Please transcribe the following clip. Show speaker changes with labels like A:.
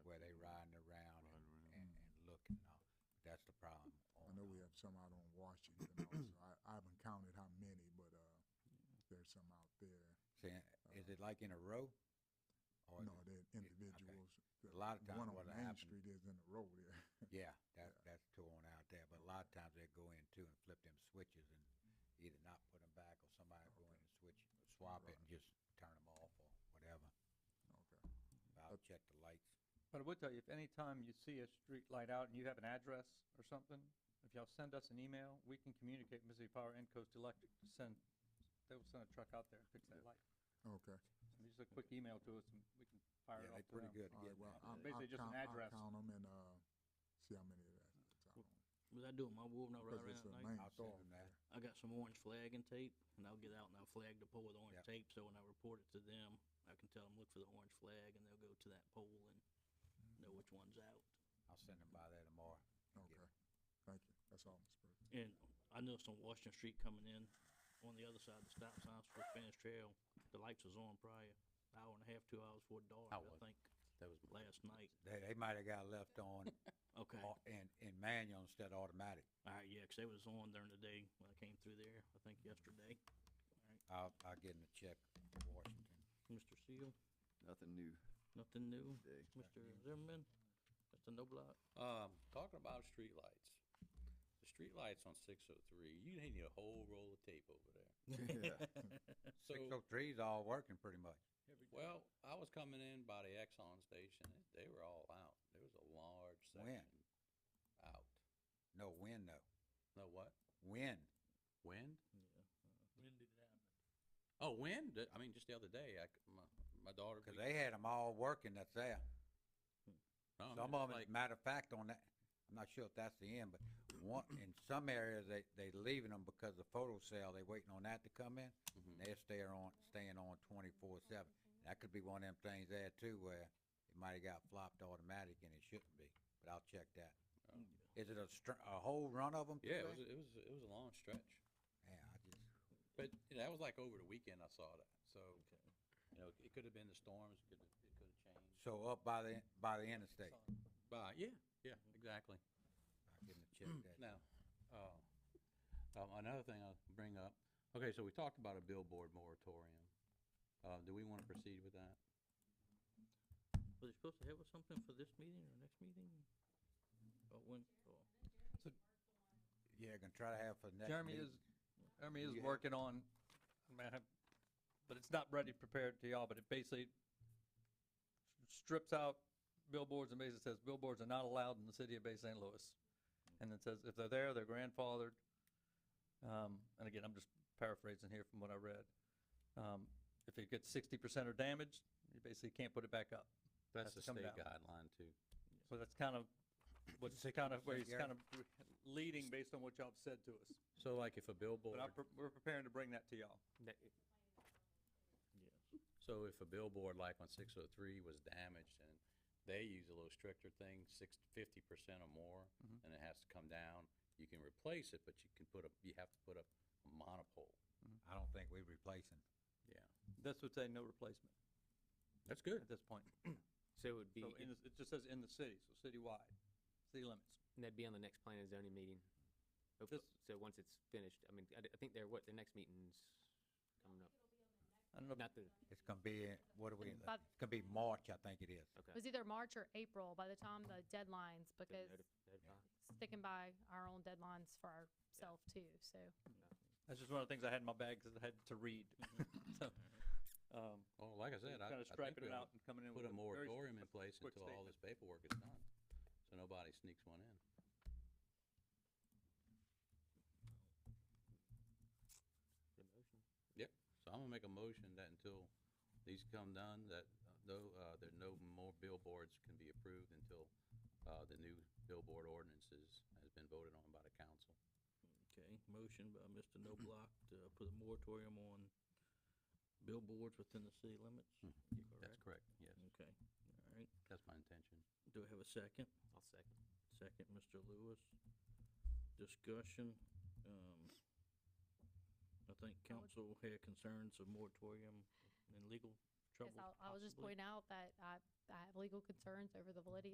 A: uh,
B: some out on Washington also. I, I haven't counted how many, but, uh, there's some out there.
A: Saying, is it like in a row? Or is
B: Uh, No,
A: it-
B: they're individuals.
A: A lot of times
B: One on
A: what'll
B: Main
A: happen,
B: Street is in the road there.
A: yeah, that's, that's torn out there, but a lot of times they'll go in too and flip them switches and either not put them back or somebody go in and switch, swap it and just turn them off or whatever.
B: Okay.
A: I'll check the lights.
C: But I would tell you, if any time you see a street light out and you have an address or something, if y'all send us an email, we can communicate with Mississippi Power and Coast Electric to send, they will send a truck out there and fix that light.
B: Okay.
C: So Just a quick email to us and we can fire
A: Yeah,
C: it off
A: they're
C: to
A: pretty
C: them.
A: good at
B: All right,
A: getting
B: well,
A: that.
B: I'm,
C: Basically
B: I'll
C: just an
B: count, I'll
C: address.
B: count them and, uh, see how many of that. it's on.
D: What I do with my woven over
B: Cause
D: right
B: it's a
D: now,
B: main
A: I'll send
B: thoroughfare.
A: them that.
D: I got some orange flagging tape, and I'll get out and I'll flag the pole with orange
A: Yep.
D: tape. So when I report it to them, I can tell them look for the orange flag, and they'll go to that pole and know which one's out.
A: I'll send them by there tomorrow.
B: Okay. Thank you. That's all, Mr. President.
D: And I noticed on Washington Street coming in, on the other side of the stop signs for Spanish Trail, the lights was on prior hour and a half, two hours before dark.
E: I
D: I
E: was-
D: think
E: That was my
D: last night.
A: They, they might have got left on,
D: Okay.
A: au- in, in manual instead of automatic.
D: All right, yeah, 'cause they was on during the day when I came through there, I think yesterday.
A: I'll, I'll get them to check Washington.
D: Mr. Seal,
F: Nothing new
D: nothing new.
F: today.
D: Mr. Zimmerman, Mr. Noblock,
E: Um, talking about streetlights, the streetlights on six oh three, you need a whole roll of tape over there.
F: Yeah.
E: So,
A: Six oh three's all working pretty much.
E: well, I was coming in by the Exxon station, and they were all out, there was a large
A: When?
E: section out.
A: No, when though?
E: No, what,
A: When?
E: wind?
D: yeah.
E: Oh, wind, I mean, just the other day, I, c- my, my daughter.
A: Cause they had them all working that's there.
E: No, I
A: Some
E: mean, it's
A: of them,
E: Um, like-
A: as a matter of fact, on that, I'm not sure if that's the end, but one, in some areas, they, they leaving them because the photo cell, they waiting on that to come in. And
E: Mhm.
A: they're staying on, staying on twenty-four seven. That could be one of them things there too where it might've got flopped automatic and it shouldn't be, but I'll check that.
E: Oh.
A: Is it a str- a whole run of them?
E: Yeah, it was, it was, it was a long stretch.
A: Yeah, I just,
E: But you know, that was like over the weekend I saw that. So, you know, it could have been the storms, it could have, it could have changed.
A: so up by the, by the interstate.
E: But, yeah, yeah, exactly.
A: I'll get 'em to
C: Mm.
A: check that.
E: Now, uh, um, another thing I'll bring up, okay, so we talked about a billboard moratorium. Uh, do we wanna proceed with that?
D: Were they supposed to have us something for this meeting or next meeting? Or when, or?
A: Yeah, gonna try to have for next
C: Jeremy
A: meeting.
C: is, Jeremy is
A: You have-
C: working on, I mean, I have- but it's not ready prepared to y'all, but it basically strips out billboards and basically says billboards are not allowed in the city of Bay St. Louis. And it says if they're there, they're grandfathered. Um, and again, I'm just paraphrasing here from what I read. Um, if it gets sixty percent or damaged, you basically can't put it back up.
E: That's
C: Has
E: the
C: to come
E: state
C: down.
E: guideline too.
C: So that's kind of, what's kind of, where
A: 60%,
C: he's kind of leading based on what y'all have said to us.
E: So like if a billboard,
C: But I'm, pre- we're preparing to bring that to y'all.
E: so if a billboard like on six oh three was damaged and they use a little stricter thing, six, fifty percent or more,
C: Mhm.
E: and it has to come down, you can replace it, but you can put up, you have to put up a monopole.
A: I don't think we replacing.
E: Yeah,
C: This would say no replacement
E: that's good.
C: at this point.
G: So it would be,
C: So in, the- it just says in the city, so citywide, city limits.
G: that'd be on the next plan and zoning meeting. Hopefully-
C: This-
G: So once it's finished, I mean, I d- I think they're, what, their next meeting's coming up,
C: I don't know, if-
G: not the,
A: It's gonna be, in- what are we, in the-
H: But-
A: it's gonna be March, I think it is.
H: It was either March or April by the time the deadlines,
G: the
H: because
G: notif- notify.
H: sticking by our own deadlines for ourselves too, so.
C: that's just one of the things I had in my bag because I had to read. So, um,
E: Well, like I said, I, I
C: Kind of
E: think
C: striping
E: we
C: it
E: ought
C: out and coming
E: to
C: in
E: put
C: with a
E: a
C: very s-
E: moratorium in place
C: quick
E: until all
C: statement.
E: this paperwork is done, so nobody sneaks one in.
G: The motion.
E: So I'm gonna make a motion that until these come done, that uh, no, uh, there no more billboards can be approved until, uh, the new billboard ordinances has been voted on by the council.
D: Okay, motion by Mr. Noblock to put a moratorium on billboards within the city limits.
E: Hmm,
D: You
E: That's correct, yes,
D: Okay, all right.
E: that's my intention.
D: Do I have a second?
G: I'll second.
D: Second, Mr. Lewis. Discussion, um, I think council had concerns of moratorium and legal
H: Yes,
D: trouble.
H: I'll- I will just
D: possibly.
H: point out that I, I have legal concerns over the validity